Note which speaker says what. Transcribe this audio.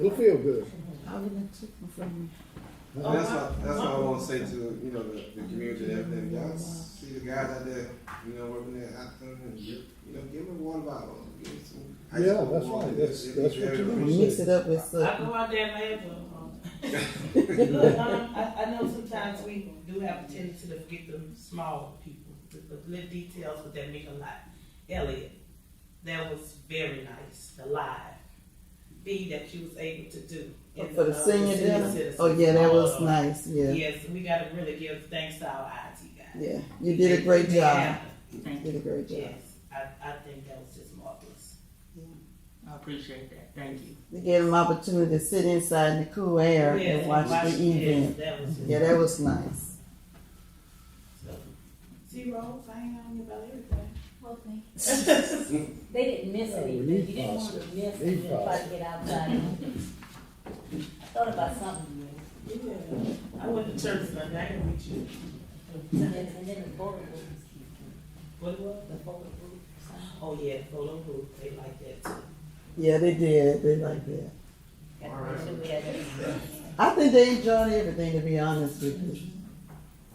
Speaker 1: It'll feel good.
Speaker 2: I'm gonna take them from
Speaker 3: And that's what that's what I want to say to you know the, the community and everything. Y'all see the guys out there, you know, working at Acton and give, you know, give them a water bottle. Give them some ice
Speaker 1: Yeah,
Speaker 3: cold
Speaker 1: that's
Speaker 3: water.
Speaker 1: right. That's-
Speaker 3: It'd
Speaker 1: that's
Speaker 3: be
Speaker 1: what
Speaker 3: very
Speaker 1: you do.
Speaker 2: you,
Speaker 3: appreciated.
Speaker 2: mix it up with
Speaker 4: I
Speaker 2: something.
Speaker 4: go out there and laugh at them. Look, um, I, I know sometimes we do have a tendency to forget the small people, the, the little details, but that make a lot. Elliot, that was very nice, the live B that you was able to do. And,
Speaker 2: Oh, For the
Speaker 4: uh,
Speaker 2: senior
Speaker 4: senior
Speaker 2: dinner,
Speaker 4: citizens.
Speaker 2: oh yeah, that was
Speaker 4: Uh,
Speaker 2: nice, yeah,
Speaker 4: Yes, we gotta really give thanks to our IT guy.
Speaker 2: yeah, you did a great job,
Speaker 4: Yeah,
Speaker 2: You
Speaker 5: Thank you.
Speaker 2: did a great job.
Speaker 4: Yes, I, I think that was just marvelous.
Speaker 5: I appreciate that. Thank you.
Speaker 2: They gave them opportunity to sit inside in the cool air
Speaker 4: Yes,
Speaker 2: and watch
Speaker 4: yes,
Speaker 2: the event,
Speaker 4: That was.
Speaker 2: yeah, that was nice.
Speaker 4: Zero, I ain't on about everything.
Speaker 6: Okay. They didn't miss
Speaker 1: Yeah, Uh, we
Speaker 6: anything, you
Speaker 1: need
Speaker 6: didn't want to
Speaker 1: positive.
Speaker 6: miss
Speaker 1: Need
Speaker 6: it, try to get outside. I thought about something,
Speaker 4: Yeah, I went to church Sunday, I didn't meet you.
Speaker 6: and then, and then the photo booth,
Speaker 4: What was?
Speaker 6: the photo booth.
Speaker 4: Oh, yeah, Polo Group, they like that too.
Speaker 2: Yeah, they did, they liked that.
Speaker 6: Got to make sure we had it.
Speaker 2: I think they enjoyed everything, to be honest with you.